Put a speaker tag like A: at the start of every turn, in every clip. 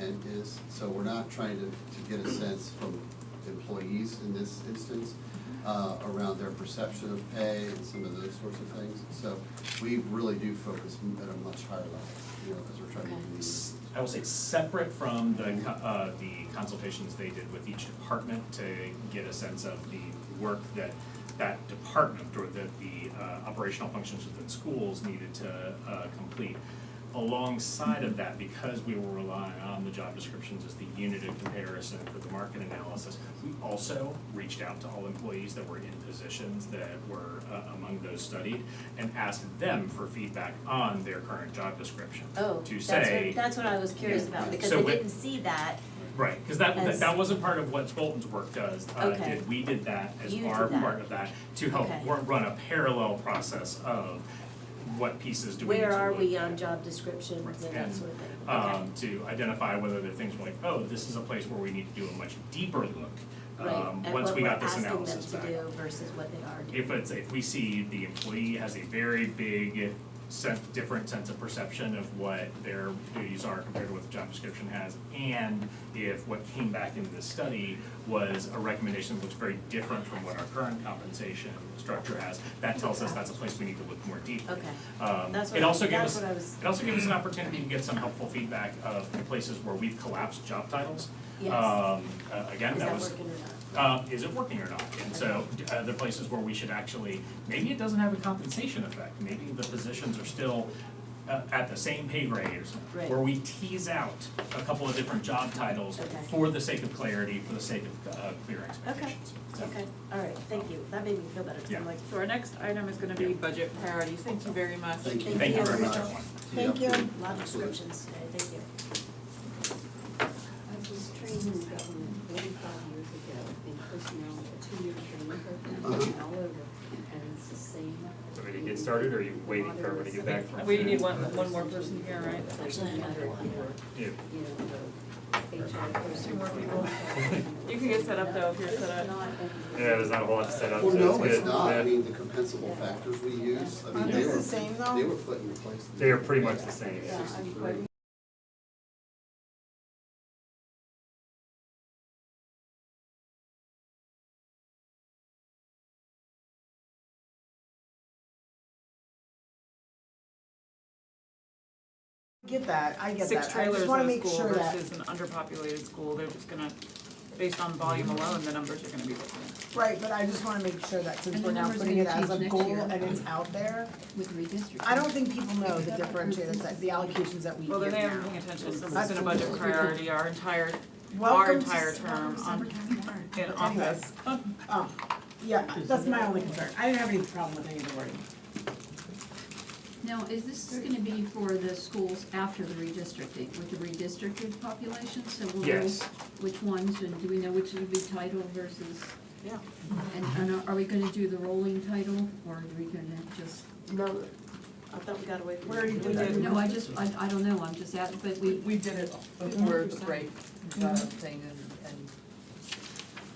A: it is, so we're not trying to, to get a sense from employees in this instance uh, around their perception of pay and some of those sorts of things. So we really do focus at a much higher level, you know, as we're trying
B: Okay.
A: to. communicate.
C: I will say, separate from the, co- uh, the consultations they did with each department to get a sense of the work that that department or that the, uh, operational functions within schools needed to, uh, complete. Alongside of that, because we were relying on the job descriptions as the unit of comparison for the market analysis, we also reached out to all employees that were in positions that were, uh, among those studied and asked them for feedback on their current job description.
B: Oh,
C: To
B: that's
C: say,
B: what, that's what I was curious about, because
C: So
B: I
C: with-
B: didn't see that,
C: Right, because that, that,
B: As-
C: that wasn't part of what Bolton's work does, uh,
B: Okay.
C: did, we did that as
B: You
C: our
B: did that.
C: part of that, to help
B: Okay.
C: wor- run a parallel process of what pieces do we need to
B: where are
C: look
B: we
C: at.
B: on job descriptions and that
C: And,
B: sort of thing, okay.
C: Um, to identify whether there are things like, oh, this is a place where we need to do a much deeper look, um, once we got this analysis back.
B: Right, and what we're asking them to do versus what they are doing.
C: If it's, if we see the employee has a very big sen- different sense of perception of what their duties are compared to what the job description has, and if what came back into the study was a recommendation that looks very different from what our current compensation structure has, that tells us that's a place we need to look more deeply.
B: Okay.
C: Um,
B: That's
C: it
B: what-
C: also gave
B: that's
C: us,
B: what I was-
C: it also gave us an opportunity to get some helpful feedback of the places where we've collapsed job titles.
B: Yes.
C: Um, uh, again,
B: Is
C: that
B: that
C: was
B: working or not?
C: uh, is it working or not? And so, uh, the places where we should actually, maybe it doesn't have a compensation effect, maybe the positions are still uh, at the same pay grade or something.
B: Right.
C: Where we tease out a couple of different job titles
B: Okay.
C: for the sake of clarity, for the sake of, uh, clear
B: Okay,
C: expectations. So-
B: okay, all right, thank you, that made me feel better, 'cause
C: Yeah.
B: I'm like,
D: So our next item is gonna be
C: Yeah.
D: budget priorities, thank you very much.
A: Thank you.
C: Thank you very much,
B: Thank you.
C: everyone.
A: Thank you.
B: a lot of
A: Absolutely.
B: descriptions today, thank you.
E: I was trained in government forty-five years ago in personnel, a two-year training program all over, and it's the same.
F: Want me to get started, or are you waiting for everyone to get back from?
D: We need one, one more person here, right?
B: Actually, another one.
C: Yeah.
E: You know, the HR person.
D: Two more people. You can get set up though, if you're set up.
F: Yeah, there's not a whole lot to set up, so
A: Well,
F: it's good.
A: no, it's not, I
F: Yeah.
A: mean, the compensable factors we use, I mean,
G: Aren't
A: they
G: those
A: were,
G: the same though?
A: they were put in place.
F: They are pretty much the same, yeah.
E: Yeah, I'm quite
G: Get that, I get
D: Six
G: that, I
D: trailers
G: just
D: in
G: wanna
D: a
G: make
D: school
G: sure that,
D: versus an underpopulated school, they're just gonna, based on volume alone, the numbers are gonna be different.
G: right, but I just wanna make sure that since
H: And the
G: we're now
H: numbers
G: putting
H: may
G: it as
H: change
G: a
H: next
G: goal
H: year.
G: and it's out there,
H: with redistricting.
G: I don't think people know the differentiators, that the allocations that we
D: Well, then
G: give
D: they haven't
G: now.
D: been paying attention, this
G: That's
D: has been a budget priority, our entire, our
G: Welcome to
D: entire
G: s-
H: Um,
D: term on, in
G: Anyways,
D: office.
G: um, yeah, that's my only concern, I didn't have any problem with any of the wording.
H: Now, is this gonna be for the schools after the redistricting, with the redistricted population, so we'll know
F: Yes.
H: which ones, and do we know which will be title versus?
G: Yeah.
H: And, and are- are we gonna do the rolling title, or are we gonna just?
B: No, I thought we got away from.
G: Where you did
B: that.
G: it.
H: No, I just, I, I don't know, I'm just at, but we, Mm-hmm.
I: We did it before the break, the thing and, and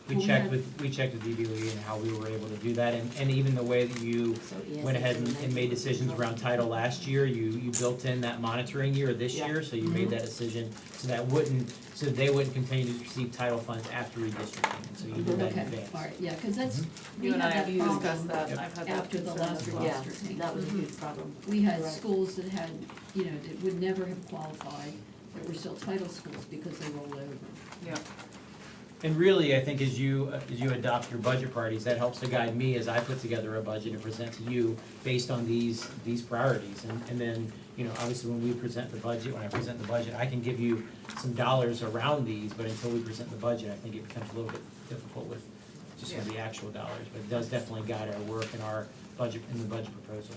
J: We
H: Well, we
J: checked
H: had-
J: with, we checked with DBLE and how we were able to do that, and, and even the way that you
B: So ESS
J: went ahead and,
B: is
J: and made decisions around title last year, you, you built in that monitoring year this
D: Yeah.
J: year, so you made that decision, so that wouldn't, so they wouldn't continue to receive title funds after redistricting, so you did that in
H: Mm-hmm. okay,
J: advance. Mm-hmm.
H: alright, yeah, cause that's, we
D: You
H: had
D: and I,
H: that
D: you discussed
H: problem
D: that, I've had that
H: after the
D: concern
H: last
D: as well.
B: Yeah,
H: redistricting.
B: that was a huge problem.
H: We had
B: Right.
H: schools that had, you know, that would never have qualified, that were still title schools because they rolled over.
D: Yeah.
J: And really, I think as you, as you adopt your budget priorities, that helps to guide me as I put together a budget and present to you based on these, these priorities. And, and then, you know, obviously when we present the budget, when I present the budget, I can give you some dollars around these, but until we present the budget, I think it becomes a little bit difficult with just with the actual dollars, but it does definitely guide our work and our budget, in the budget proposal.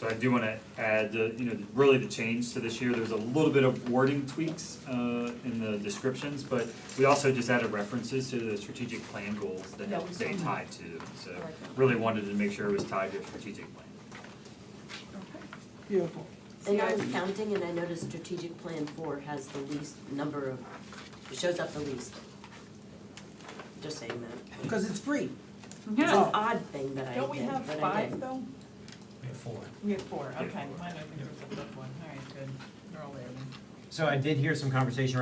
F: So I do wanna add, uh, you know, really the change to this year, there was a little bit of wording tweaks uh in the descriptions, but we also just added references to the strategic plan goals that
D: Yeah, we saw
F: they
D: that.
F: tied to, them. so
D: I like that.
F: really wanted to make sure it was tied to a strategic plan.
G: Beautiful.
B: And I was counting and I noticed strategic plan four has the least number of, it shows up the least. Just saying that.
G: Cause it's free,
B: It's
D: Yeah.
B: an odd thing that I did,
D: Don't we have
B: but I
D: five
B: did.
D: though?
J: We have four.
D: We have four,
F: Yeah.
D: okay, mine I think was the fifth one, all right, good, they're all there then.
J: So I did hear some conversation